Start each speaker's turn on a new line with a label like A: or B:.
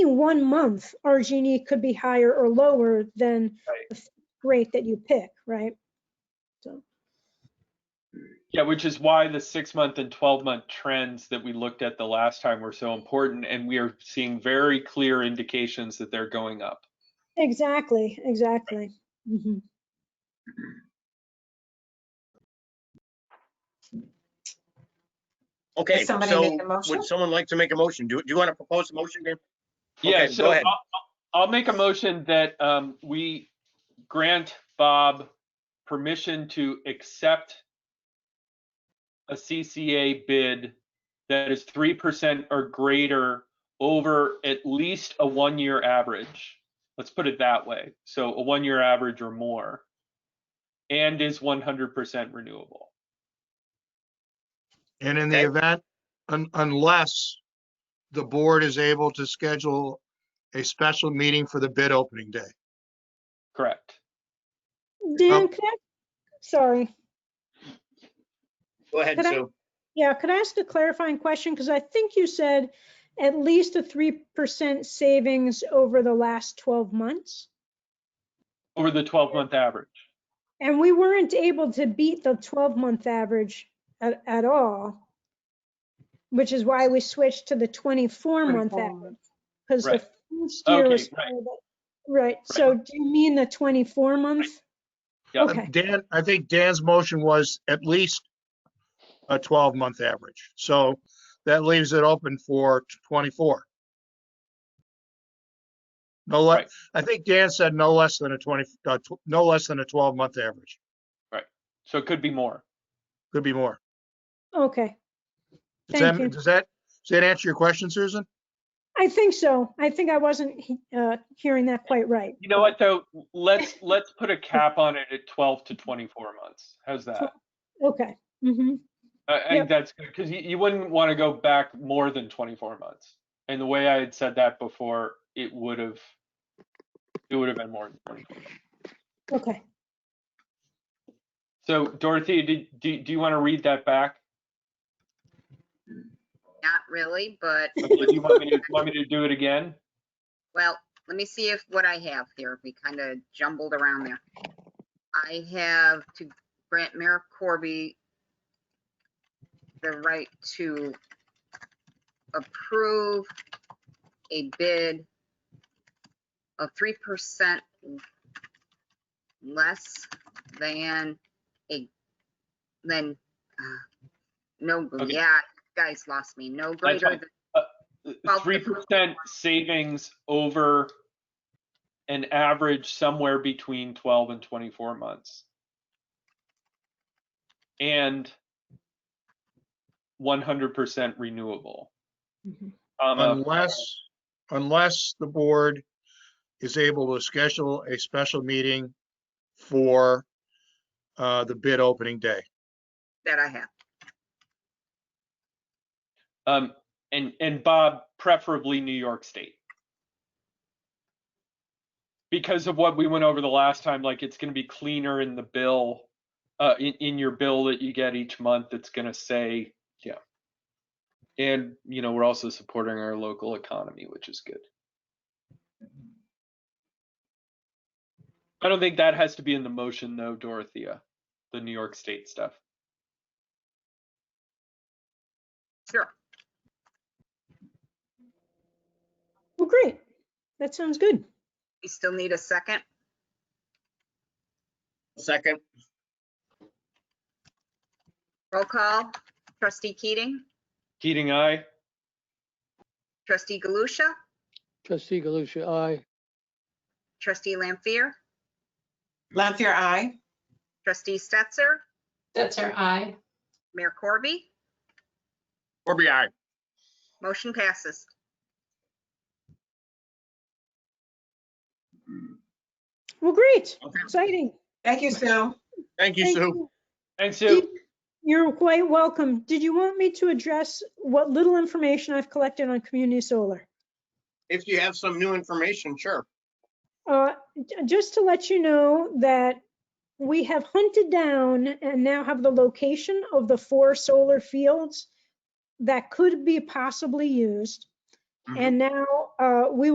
A: one month, our Gini could be higher or lower than
B: Right.
A: the f- rate that you pick, right?
B: Yeah, which is why the six month and 12 month trends that we looked at the last time were so important. And we are seeing very clear indications that they're going up.
A: Exactly, exactly. Mhm.
C: Okay,
D: Does somebody make
C: so
D: a motion?
C: would someone like to make a motion? Do, do you want to propose a motion, Dan?
B: Yeah,
C: Okay, go
B: so
C: ahead.
B: I'll, I'll make a motion that um, we grant Bob permission to accept a CCA bid that is 3% or greater over at least a one-year average. Let's put it that way. So a one-year average or more. And is 100% renewable.
E: And in the
C: Okay.
E: event, un- unless the board is able to schedule a special meeting for the bid opening day.
B: Correct.
A: Dan, could I, sorry.
C: Go ahead,
A: Could I-
C: Sue.
A: Yeah, could I ask a clarifying question? Because I think you said at least a three percent savings over the last twelve months.
B: Over the 12-month average.
A: And we weren't able to beat the twelve month average at, at all. Which is why we switched to the twenty-four month
D: 24
A: average. Because the
B: Right.
A: first year was.
B: Okay, right.
A: higher than- Right, so do you mean the twenty-four month?
B: Yeah.
A: Okay.
E: Uh, Dan, I think Dan's motion was at least a 12-month average. So that leaves it open for 24. No, le-
B: Right.
E: I think Dan said no less than a 20, uh, tw- no less than a 12-month average.
B: So it could be more.
E: Could be more.
A: Okay,
E: Does
A: Thank
E: that-
A: you.
E: Does that, does that answer your question, Susan?
A: I think so. I think I wasn't he- uh, hearing that quite right.
B: You know what, though? Let's, let's put a cap on it at 12 to 24 months. How's that?
A: Okay, hmm
B: I I
A: Yep.
B: think that's good because you, you wouldn't want to go back more than 24 months. And the way I had said that before, it would have, it would have been more than 24. months.
A: okay.
B: So Dorothy, did, do, do you want to read that back?
F: Not really, but,
B: Okay, Do you want me to, want me to do it again?
F: well, let me see if, what I have here. We kind of jumbled around there. I have to grant Mayor Corby the right to approve a bid of three percent less than a, than, uh, no,
B: Okay.
F: yeah, guys lost me, no greater
B: fine.
F: than Well,
B: Three percent savings over an average somewhere between twelve and twenty-four months. And one hundred percent renewable.
A: Mhm.
B: comma,
E: Unless, unless the board is able to schedule a special meeting for uh, the bid opening day.
F: that I have.
B: Um, and, and Bob, preferably New York State. Because of what we went over the last time, like it's gonna be cleaner in the bill, uh, in, in your bill that you get each month, it's gonna say, yeah. And, you know, we're also supporting our local economy, which is good. I don't think that has to be in the motion though, Dorothea, the New York State stuff.
F: Sure.
A: Well, great. That sounds good.
F: We still need a second.
C: Second,
F: Roll call. Trustee Keating,
B: Keating, aye?
F: trustee Galusha,
G: Trustee Galusha, aye.
F: trustee Lampier,
D: Lampier, aye.
F: trustee Stetser,
D: Stetser, aye.
F: Mayor Corby.
C: Corby, aye.
F: Motion passes.
A: Well, great.
C: Okay.
A: Exciting.
D: Thank you, Sue.
C: Thank you,
A: Thank
C: Sue.
B: And Sue?
A: Did- You're quite welcome. Did you want me to address what little information I've collected on community solar?
C: If you have some new information, sure.
A: Uh, j- Just to let you know that we have hunted down and now have the location of the four solar fields that could be possibly used. And now uh, we